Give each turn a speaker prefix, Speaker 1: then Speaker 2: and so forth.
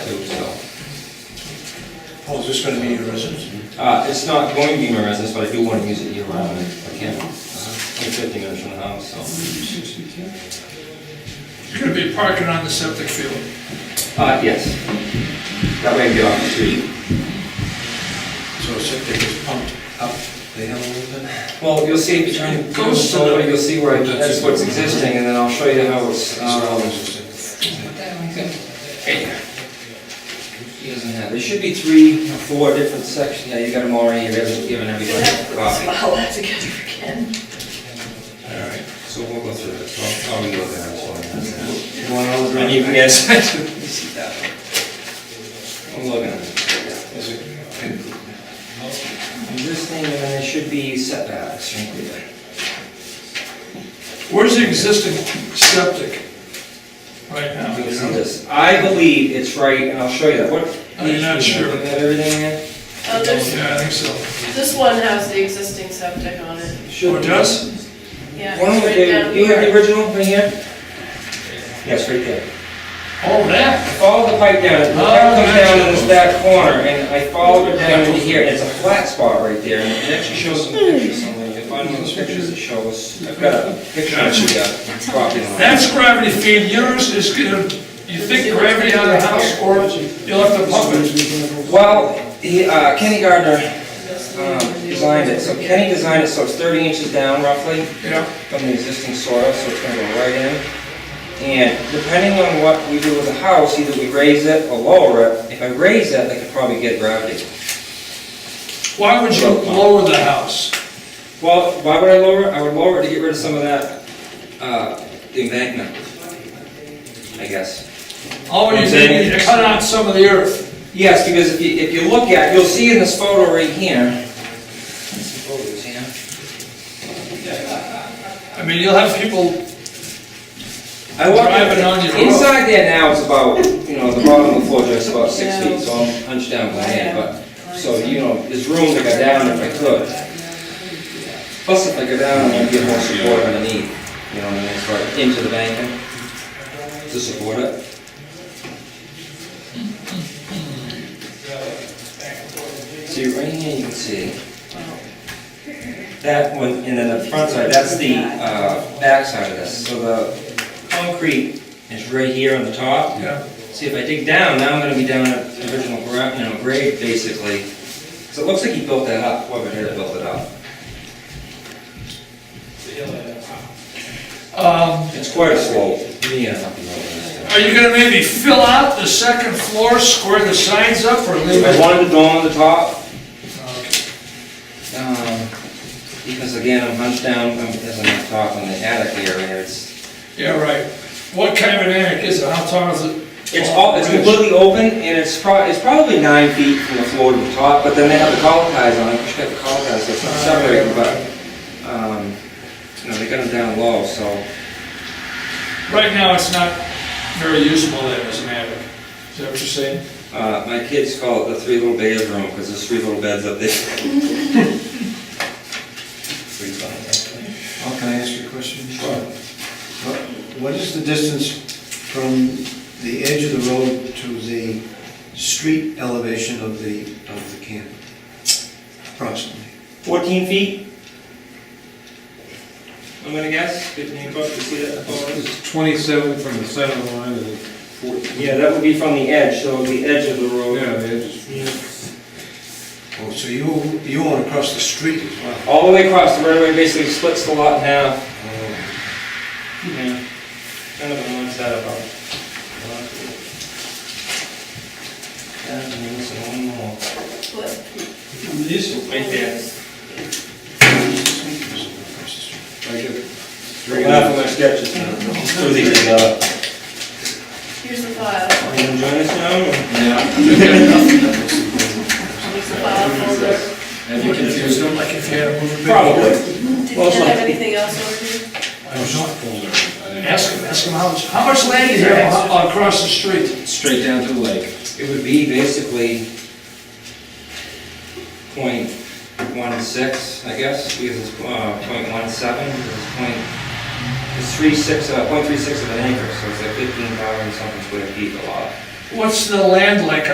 Speaker 1: too, so.
Speaker 2: Oh, is this gonna be your residence?
Speaker 1: Uh, it's not going to be my residence, but I do want to use it year round if I can. Uh-huh. I'm fifty minutes from the house, so.
Speaker 3: It's gonna be parking on the septic field.
Speaker 1: Uh, yes. That way I can get off the street.
Speaker 2: So septic is pumped up the hill a little bit?
Speaker 1: Well, you'll see, if you turn it
Speaker 3: Goes to
Speaker 1: over,
Speaker 3: the-
Speaker 1: you'll see where, I- that's what's existing, and then I'll show you how it's, um, he doesn't have, there should be three or four different sections, yeah, you got them already, you're given given everybody a copy.
Speaker 4: Well, that's a good again.
Speaker 1: All right, so we'll go through this, I'll, I'll go there, so I And you can get, see that one. I'm looking at it. Is it- And this thing, and then there should be setbacks, right there.
Speaker 3: Where's the existing septic right now?
Speaker 1: You can see this. I believe it's right, and I'll show you that, what?
Speaker 3: I'm not sure.
Speaker 1: Is that everything here?
Speaker 4: Oh, there's,
Speaker 3: Yeah, I think so.
Speaker 4: this one has the existing septic on it,
Speaker 3: Oh, it does?
Speaker 4: yeah.
Speaker 1: One of them,
Speaker 4: it's right
Speaker 1: David,
Speaker 4: down
Speaker 1: do you have the
Speaker 4: here.
Speaker 1: original right here? Yes, right there.
Speaker 3: Oh, that?
Speaker 1: I followed the pipe down,
Speaker 3: Oh,
Speaker 1: the pipe comes down to this back corner, and I followed it down to here, and it's a flat spot right there, and it actually shows some pictures somewhere, you can find one of those pictures that shows, I've got a picture of the uh, property line.
Speaker 3: That's gravity feed, yours is gonna, you think gravity on the house, or you'll have to pump it?
Speaker 1: Well, he, uh, Kenny Gardner, um, designed it, so Kenny designed it so it's thirty inches down roughly,
Speaker 3: Yeah.
Speaker 1: from the existing soil, so it's gonna go right in. And depending on what we do with the house, either we raise it or lower it. If I raise it, I could probably get gravity.
Speaker 3: Why would you lower the house?
Speaker 1: Well, why would I lower it? I would lower it to get rid of some of that, uh, embankment, I guess.
Speaker 3: All you did, is you cut out some of the earth.
Speaker 1: Yes, because if you, if you look at, you'll see in this photo right here. Some photos, yeah.
Speaker 3: I mean, you'll have people,
Speaker 1: I walk
Speaker 3: Driving on your road.
Speaker 1: Inside there now is about, you know, the bottom of the floor joist's about six
Speaker 4: Yeah.
Speaker 1: feet, so I'm hunched down by hand, but, so, you know, there's room to go down if I could. Plus, if I go down, I'd get more support underneath, you know, what I mean, it's right into the banking to support it. See, right here you can see, uh, that one, and then the front side, that's the, uh, back side of this, so the concrete is right here on the top.
Speaker 3: yeah,
Speaker 1: See, if I dig down, now I'm gonna be down at the original gra, you know, grade, basically. So it looks like he built that up, whoever did it built it up.
Speaker 3: um,
Speaker 1: It's quite a slope. Yeah.
Speaker 3: are you gonna maybe fill out the second floor, square the signs up, or leave
Speaker 1: I
Speaker 3: it?
Speaker 1: wanted the dome on the top,
Speaker 3: Okay.
Speaker 1: um, because again, I'm hunched down, I'm, as I'm up top in the attic area, it's,
Speaker 3: Yeah, right. What kind of an attic is it? How tall is it?
Speaker 1: it's all, it's completely open, and it's prob, it's probably nine feet from the floor to the top, but then they have the collar ties on, it. you should have the collar ties, so it's not separated, but, um, you know, they got them down low, so.
Speaker 3: Right now, it's not very usable there as an attic. Is that what you're saying?
Speaker 1: Uh, my kids call it the three little bears room, because there's three little beds up there. Three beds.
Speaker 2: Oh, can I ask you a question? What- What is the distance from the edge of the road to the street elevation of the, of the camp? Approximately.
Speaker 1: Fourteen feet? I'm gonna guess, fifteen foot, you see that above?
Speaker 5: It's 27 from the center line and 14.
Speaker 1: Yeah, that would be from the edge, so the edge of the
Speaker 5: Yeah,
Speaker 1: road.
Speaker 5: they just,
Speaker 2: Oh, so you, you want to cross the street as well?
Speaker 1: All the way across, the right away basically splits the lot in half.
Speaker 2: uh,
Speaker 1: Yeah. Kind of a long setup, huh? Yeah, and then there's one more.
Speaker 4: What?
Speaker 1: Right there.
Speaker 5: Three and a
Speaker 1: Not for my sketches, no. Through these, uh,
Speaker 4: Here's the file,
Speaker 1: Are you gonna join us now? or?
Speaker 4: here's the file folder.
Speaker 6: Have you confused them?
Speaker 3: Like if you had a moving
Speaker 1: Probably.
Speaker 4: Did you have anything else over
Speaker 3: Ask him, ask him how much, how much land do you have a- across the street?
Speaker 6: Straight down to the lake.
Speaker 1: It would be basically point one six, I guess, because it's uh, point one seven, it's point, it's three six, uh, point three six of an acre, so it's like fifteen thousand something square feet a lot.
Speaker 3: what's the land like